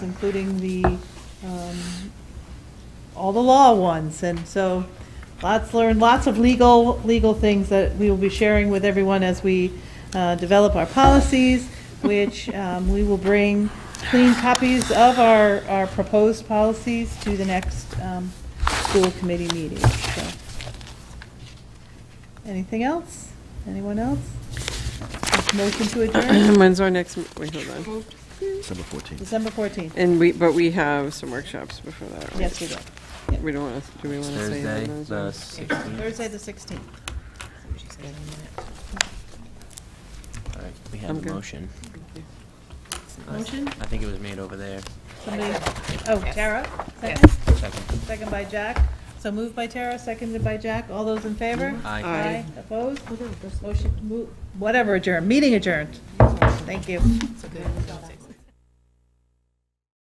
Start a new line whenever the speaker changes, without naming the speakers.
including the, um, all the law ones. And so lots learned, lots of legal, legal things that we will be sharing with everyone as we uh, develop our policies, which um, we will bring clean copies of our, our proposed policies to the next um, school committee meeting. So, Anything else? Anyone else? Motion to adjourn,
When's our next, m- wait, hold on.
December 14th.
December 14th.
And we, but we have some workshops before that, right?
Yes, we do.
We don't want to, do we want to say? when
Thursday,
those
the
are?
sixteenth.
Thursday, the 16th.
All right, we
I'm
have
good.
a motion. I-
Motion?
I think it was made over there.
Somebody, oh, Tara, second?
Yes.
Second.
Second by Jack. So moved by Tara, seconded by Jack. All those in favor?
Aye.
Aye. Opposed? Motion, mo- whatever adjourned, meeting adjourned. Thank you.
So good.